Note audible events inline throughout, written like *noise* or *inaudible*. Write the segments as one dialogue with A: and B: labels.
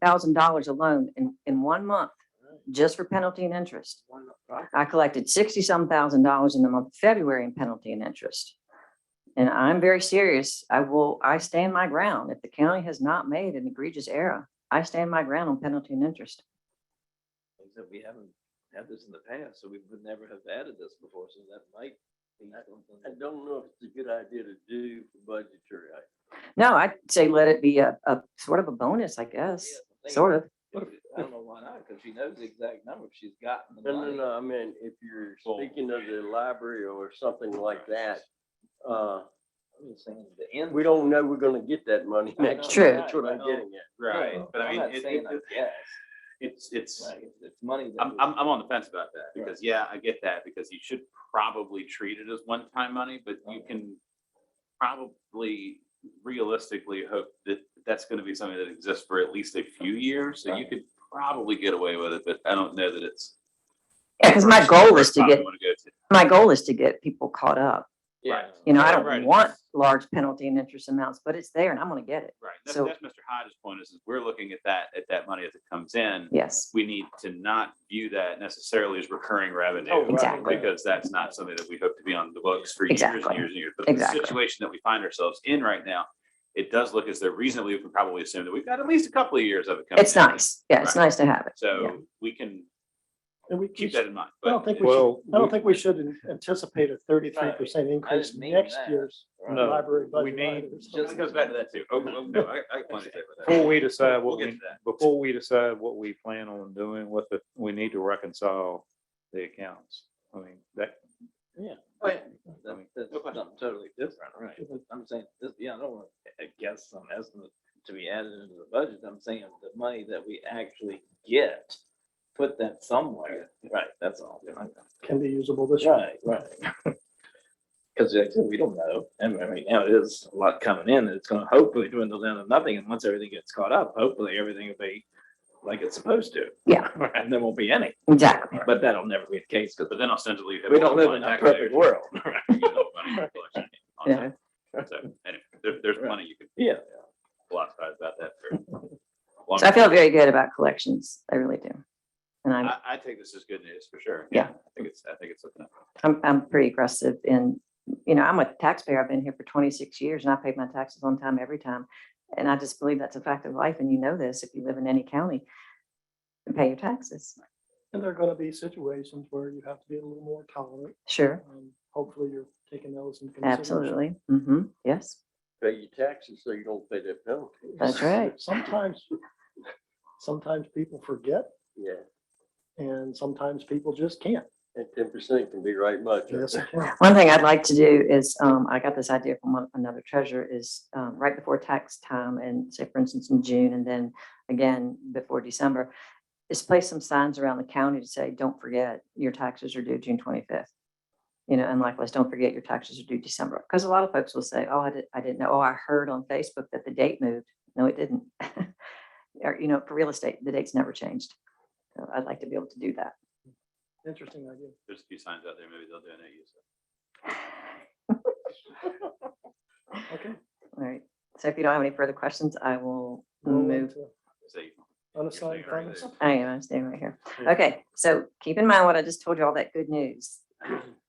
A: thousand dollars alone in, in one month, just for penalty and interest. I collected sixty-some thousand dollars in the month of February in penalty and interest. And I'm very serious. I will, I stand my ground. If the county has not made an egregious error, I stand my ground on penalty and interest.
B: Like I said, we haven't had this in the past, so we would never have added this before, so that might be something.
C: I don't know if it's a good idea to do for budgetary items.
A: No, I'd say let it be a, a sort of a bonus, I guess, sort of.
B: I don't know why not, because she knows the exact number, if she's gotten the
C: No, no,
B: money.
C: no, I mean, if you're
B: Well-
C: speaking of the library or something like that, uh,
B: I'm just saying The end.
C: we don't know we're gonna get that money
B: I know,
C: next
A: True.
C: year. That's what I'm
B: right,
C: getting at.
D: Right, but I
B: I'm
D: mean,
B: not
D: it,
B: saying
D: it,
B: I guess,
D: it's, it's,
B: like, it's- it's money. that
D: I'm,
B: was-
D: I'm, I'm on the fence about that,
B: Right.
D: because, yeah, I get that, because you should probably treat it as one-time money, but you
B: Okay.
D: can probably realistically hope that that's gonna be something that exists for at least a few years, so you
B: Right.
D: could probably get away with it, but I don't know that it's.
A: Because my goal is
D: first
A: to
D: time
A: get,
D: you wanna go to.
A: my goal is to get people caught up.
D: Right.
A: You know, I
D: Right,
A: don't
D: it
A: want
D: is.
A: large penalty and interest amounts, but it's there and I'm gonna get it.
D: Right, that's,
A: So-
D: that's Mr. Hodges' point, is, is we're looking at that, at that money as it comes in,
A: Yes,
D: we need to not view that necessarily as recurring
C: Oh,
D: revenue.
C: right,
A: Exactly.
C: right.
D: Because that's not something that we hope to be on the books for years and years
A: Exactly.
D: and years. But the
A: Exactly.
D: situation that we find ourselves in right now, it does look as though reasonably we can probably assume that we've got at least a couple of years of it coming.
A: it's
D: in.
A: nice. Yeah, it's
D: Right.
A: nice to have it. Yeah.
D: So we can
E: And we,
D: keep
E: we-
D: that in mind.
E: I don't
D: but
E: think
D: it-
E: we should,
F: Well,
E: I don't
F: we-
E: think we should an- anticipate a thirty-three percent increase in
B: mean
E: next
B: that.
E: year's
B: Right.
F: No.
E: library budget.
F: need-
E: either, so-
D: Just goes back to that too. Oh, oh, no, I, I want to say about that.
F: Before we decide
D: We'll
F: what
D: get
F: we,
D: to that.
F: before we decide what we plan on doing with it, we need to reconcile the accounts. I mean, that,
B: That- That's something totally different, right? I'm saying, this, yeah, I don't want to guess some estimate to be added into the budget. I'm saying the money that we actually get, put that somewhere. Right, that's all.
E: Can be usable this year.
B: Right, right. Because we don't know. And I mean, now it is a lot coming in. It's going to hopefully dwindle down to nothing. And once everything gets caught up, hopefully everything will be like it's supposed to.
A: Yeah.
F: *laughs*
B: And there won't be any,
A: Exactly.
B: but that'll never be the case because
D: But then ostensibly.
B: we don't live in a perfect
D: *laughs*
B: world.
A: Yeah.
D: So anyway, there, there's money you could
B: Yeah.
D: philosophize about that.
B: *laughs*
D: for a long
A: So I
D: time.
A: feel very good about collections. I really do. And I'm,
D: I, I think this is good news for sure.
A: Yeah.
D: I think it's, I think it's, something.
A: I'm, I'm pretty aggressive in, you know, I'm a taxpayer. I've been here for twenty-six years and I paid my taxes on time every time. And I just believe that's a fact of life. And you know this, if you live in any county, pay your taxes.
E: And there are gonna be situations where you have to be a little more tolerant.
A: Sure,
E: Um, Hopefully you're taking those into consideration.
A: absolutely. hmm yes.
C: Pay your taxes so you don't pay that penalty.
A: That's right.
E: Sometimes, sometimes people forget
C: Yeah,
E: and sometimes people just can't.
C: and ten percent can be right much.
E: Yes, it can.
A: One thing I'd like to do is, um, I got this idea from one- another treasurer is, um, right before tax time and say, for instance, in June and then again before December, is place some signs around the county to say, don't forget, your taxes are due June twenty-fifth. You know, and likewise, don't forget your taxes are due December. Because a lot of folks will say, oh, I didn't, I didn't know, oh, I heard on Facebook that the date moved. No, it didn't. *laughs* Or, you know, for real estate, the date's never changed. So I'd like to be able to do that.
E: Interesting idea.
D: there's a few signs out there, maybe they'll donate you. some.
E: Okay.
A: All right. So if you don't have any further questions, I will
E: Roll
A: move.
E: into
D: So you-
E: Unassigned
D: You're saying
E: funds.
D: right
A: I am, I'm staying right here.
E: Yeah.
A: Okay, so keep in mind what I just told you, all that good news.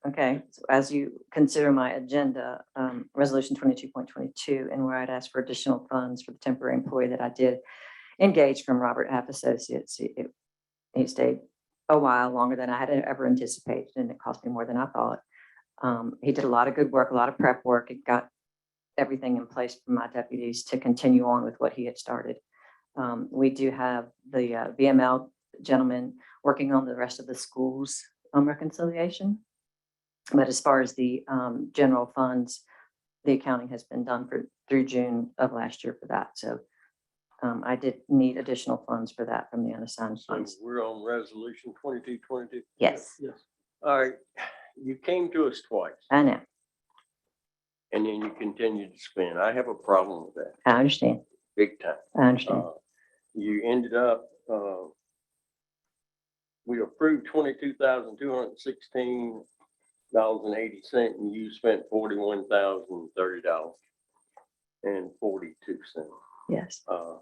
A: Okay, so as you consider my agenda, um, resolution twenty-two point twenty-two, and where I'd ask for additional funds for the temporary employee that I did engage from Robert Half Associates. He- it- He stayed a while longer than I had ever anticipated, and it cost me more than I thought. Um, he did a lot of good work, a lot of prep work. It got everything in place for my deputies to continue on with what he had started. Um, we do have the uh, VML gentleman working on the rest of the schools um, reconciliation. But as far as the um, general funds, the accounting has been done for, through June of last year for that. So um, I did need additional funds for that from the unassigned
C: So
A: funds.
C: we're on resolution twenty-two, twenty-two.
A: Yes,
E: Yes.
C: All right, you came to us twice
A: I know.
C: and then you continued to spend. I have a problem with that,
A: I understand.
C: big time.
A: I understand.
C: Uh, You ended up, uh, we approved twenty-two thousand, two hundred and sixteen dollars and eighty cent, and you spent forty-one thousand, thirty dollars and forty-two cents.
A: Yes.
C: Uh,